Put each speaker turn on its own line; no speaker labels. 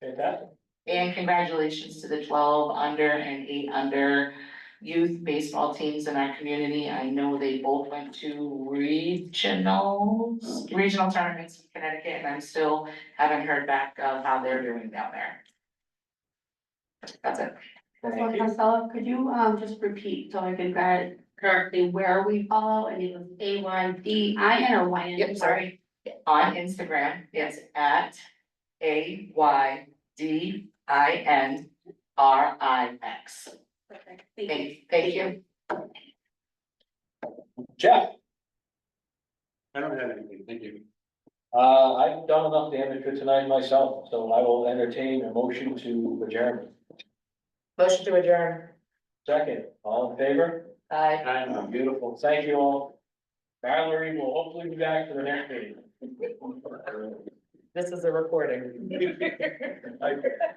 Fantastic.
And congratulations to the twelve under and eight under youth baseball teams in our community. I know they both went to regionals, regional tournaments in Connecticut, and I'm still haven't heard back of how they're doing down there. That's it.
Thank you.
Myself, could you um just repeat so I can get it correctly where we follow and it was A Y D I N or Y N?
Yep, sorry. On Instagram, it's at A Y D I N R I X.
Perfect. Thank you.
Thank, thank you.
Jeff,
I don't have anything, thank you.
uh, I've done enough damage for tonight myself, so I will entertain a motion to adjourn.
Motion to adjourn.
Second, all in favor?
Bye.
Um,
Beautiful, thank you all. Mallory will hopefully be back for the next meeting.
This is a recording.
I-